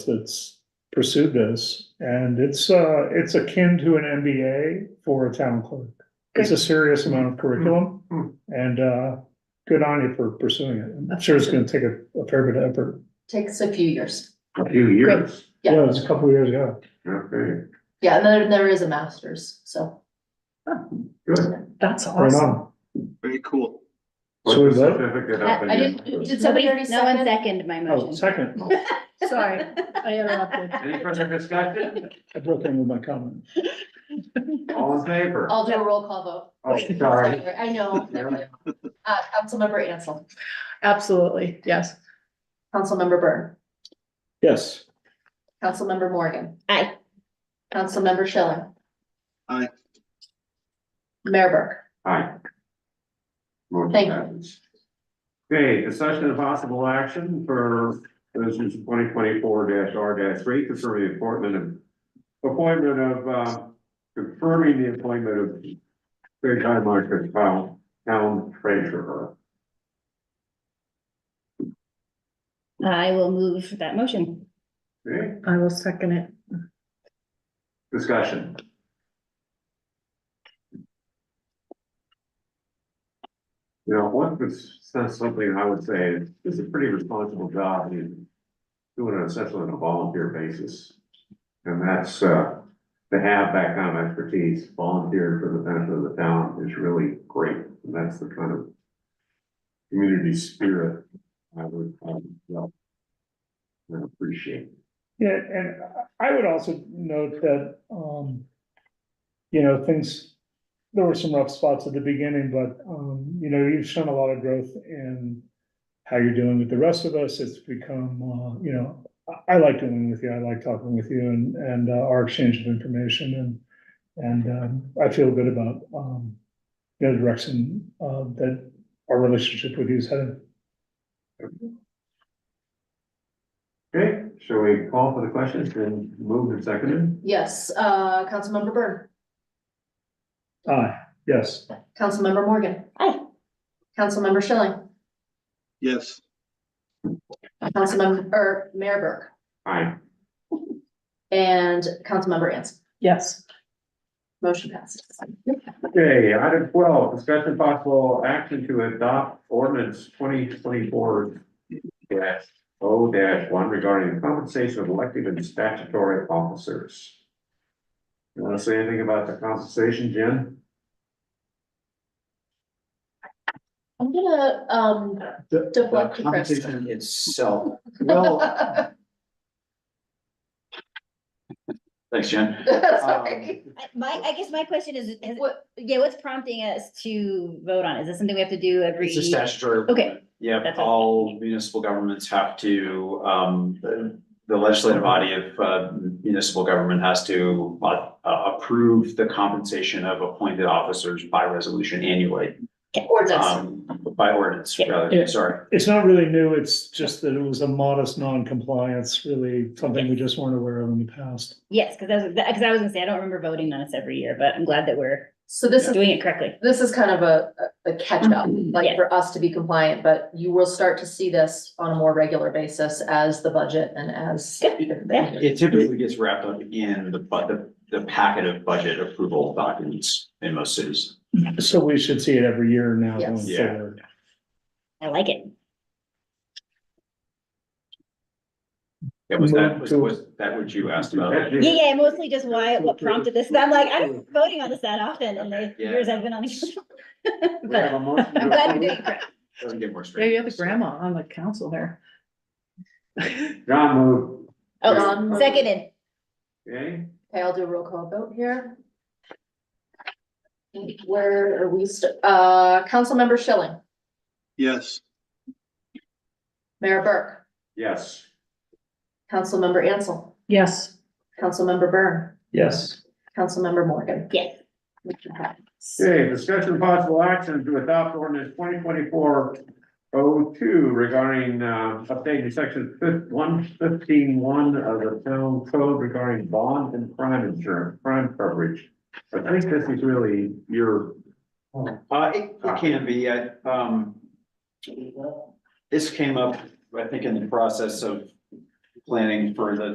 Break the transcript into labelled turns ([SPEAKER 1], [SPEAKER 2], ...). [SPEAKER 1] that's pursued this, and it's, uh, it's akin to an MBA for a town clerk. It's a serious amount of curriculum,
[SPEAKER 2] Hmm.
[SPEAKER 1] and, uh, good on you for pursuing it. I'm sure it's gonna take a, a fair bit of effort.
[SPEAKER 3] Takes a few years.
[SPEAKER 2] A few years,
[SPEAKER 3] Yeah.
[SPEAKER 1] Yeah, it was a couple of years ago.
[SPEAKER 2] okay,
[SPEAKER 3] Yeah, and there, there is a master's, so.
[SPEAKER 2] good.
[SPEAKER 4] That's
[SPEAKER 1] Right
[SPEAKER 4] awesome.
[SPEAKER 1] on.
[SPEAKER 5] Very cool.
[SPEAKER 1] So
[SPEAKER 2] Put the
[SPEAKER 1] we vote?
[SPEAKER 2] certificate
[SPEAKER 3] I
[SPEAKER 2] up
[SPEAKER 3] I
[SPEAKER 2] again.
[SPEAKER 3] didn't, did somebody
[SPEAKER 4] Nobody-
[SPEAKER 3] already
[SPEAKER 4] no one
[SPEAKER 3] second?
[SPEAKER 4] seconded my
[SPEAKER 1] Oh,
[SPEAKER 4] motion.
[SPEAKER 1] second,
[SPEAKER 4] Sorry, I interrupted.
[SPEAKER 2] Any further discussion?
[SPEAKER 1] I broke in with my comment.
[SPEAKER 2] All in favor?
[SPEAKER 3] I'll do a roll call vote.
[SPEAKER 2] Oh, sorry.
[SPEAKER 3] I know. Uh, Councilmember Ansel,
[SPEAKER 4] Absolutely, yes.
[SPEAKER 3] Councilmember Byrne,
[SPEAKER 1] Yes,
[SPEAKER 3] Councilmember Morgan.
[SPEAKER 4] Aye.
[SPEAKER 3] Councilmember Schilling.
[SPEAKER 5] Aye.
[SPEAKER 3] Mayor Burke.
[SPEAKER 2] Aye. Motion
[SPEAKER 3] Thank you.
[SPEAKER 2] passes. Okay, discussion of possible action for resolution twenty twenty-four R three, confirming the appointment of, appointment of, uh, confirming the appointment of Craig Highmark as town, town treasurer.
[SPEAKER 6] I will move that motion.
[SPEAKER 2] Okay,
[SPEAKER 4] I will second it.
[SPEAKER 2] discussion. You know, one would sense something I would say, it's a pretty responsible job, you doing it essentially on a volunteer basis. And that's, uh, to have that kind of expertise, volunteer for the benefit of the town is really great, and that's the kind of community spirit I would, I would, love and appreciate.
[SPEAKER 1] yeah, and I would also note that, um, you know, things, there were some rough spots at the beginning, but, um, you know, you've shown a lot of growth in how you're doing with the rest of us. It's become, uh, you know, I, I like doing with you. I like talking with you and, and uh, our exchange of information and, and, um, I feel good about, um, you know, the direction, uh, that our relationship with you is headed.
[SPEAKER 2] Okay, shall we call for the question? It's been moved and seconded.
[SPEAKER 3] Yes, uh, Councilmember Byrne,
[SPEAKER 1] Aye, yes.
[SPEAKER 3] Councilmember Morgan.
[SPEAKER 6] Aye.
[SPEAKER 3] Councilmember Schilling,
[SPEAKER 5] Yes,
[SPEAKER 3] Councilmember, or Mayor Burke
[SPEAKER 2] Aye.
[SPEAKER 3] and Councilmember Ansel.
[SPEAKER 4] Yes,
[SPEAKER 3] Motion passes.
[SPEAKER 2] Okay, item twelve, discussion possible action to adopt ordinance twenty twenty-four dash O dash one regarding the compensation of elected and statutory officers. You wanna say anything about the compensation, Jen?
[SPEAKER 3] I'm gonna, um,
[SPEAKER 7] The,
[SPEAKER 3] Deflect
[SPEAKER 7] the
[SPEAKER 3] the press.
[SPEAKER 7] competition itself, well, thanks, Jen.
[SPEAKER 3] sorry.
[SPEAKER 7] um,
[SPEAKER 6] My, I guess my question is, is-
[SPEAKER 3] What,
[SPEAKER 6] yeah, what's prompting us to vote on? it? Is this something we have to do every?
[SPEAKER 7] It's a statutory.
[SPEAKER 6] Okay.
[SPEAKER 7] Yep,
[SPEAKER 6] That's all.
[SPEAKER 7] all municipal governments have to, um, the the legislative body of uh, municipal government has to uh, uh, approve the compensation of appointed officers by resolution annually.
[SPEAKER 3] ordinance,
[SPEAKER 7] um, By ordinance,
[SPEAKER 6] Yeah.
[SPEAKER 7] rather, sorry.
[SPEAKER 1] It's not really new, it's just that it was a modest non-compliance, really something we just weren't aware of in the past.
[SPEAKER 6] Yes, because that's, because I was gonna say, I don't remember voting on this every year, but I'm glad that we're
[SPEAKER 3] so this is,
[SPEAKER 6] doing it correctly.
[SPEAKER 3] this is kind of a, a catch-up, like
[SPEAKER 6] Mm-hmm. Yes.
[SPEAKER 3] for us to be compliant, but you will start to see this on a more regular basis as the budget and as.
[SPEAKER 6] Yeah.
[SPEAKER 7] It typically gets wrapped up in the, bu- the, the packet of budget approval documents in most cities.
[SPEAKER 1] So we should see it every year now going
[SPEAKER 3] Yes.
[SPEAKER 7] Yeah.
[SPEAKER 1] forward.
[SPEAKER 6] I like it.
[SPEAKER 7] Yeah, was that,
[SPEAKER 1] Move
[SPEAKER 7] was,
[SPEAKER 1] to-
[SPEAKER 7] was that what you asked about?
[SPEAKER 6] Yeah, yeah, mostly just why, what prompted this. I'm like, I'm voting on this that often in the
[SPEAKER 7] Yeah.
[SPEAKER 6] years I've been on the council.
[SPEAKER 2] We have
[SPEAKER 6] But
[SPEAKER 2] a motion to
[SPEAKER 6] I'm glad we're
[SPEAKER 2] approve.
[SPEAKER 6] doing it correctly.
[SPEAKER 7] Doesn't get more straight.
[SPEAKER 4] yeah, you're the grandma on the council there.
[SPEAKER 2] John moved,
[SPEAKER 6] Oh, seconded.
[SPEAKER 2] okay?
[SPEAKER 3] Okay, I'll do a roll call vote here. Where are we, st- uh, Councilmember Schilling,
[SPEAKER 5] yes,
[SPEAKER 3] Mayor Burke,
[SPEAKER 2] Yes.
[SPEAKER 3] Councilmember Ansel,
[SPEAKER 4] Yes,
[SPEAKER 3] Councilmember Byrne,
[SPEAKER 1] Yes.
[SPEAKER 3] Councilmember Morgan.
[SPEAKER 6] Yes.
[SPEAKER 3] Motion passes.
[SPEAKER 2] Okay, discussion of possible action to adopt ordinance twenty twenty-four oh two regarding, uh, updating section fif- one fifteen one of the town code regarding bond and crime insurance, crime coverage. I think this is really your,
[SPEAKER 7] Uh, it, it can be, I, um. This came up, I think, in the process of planning for the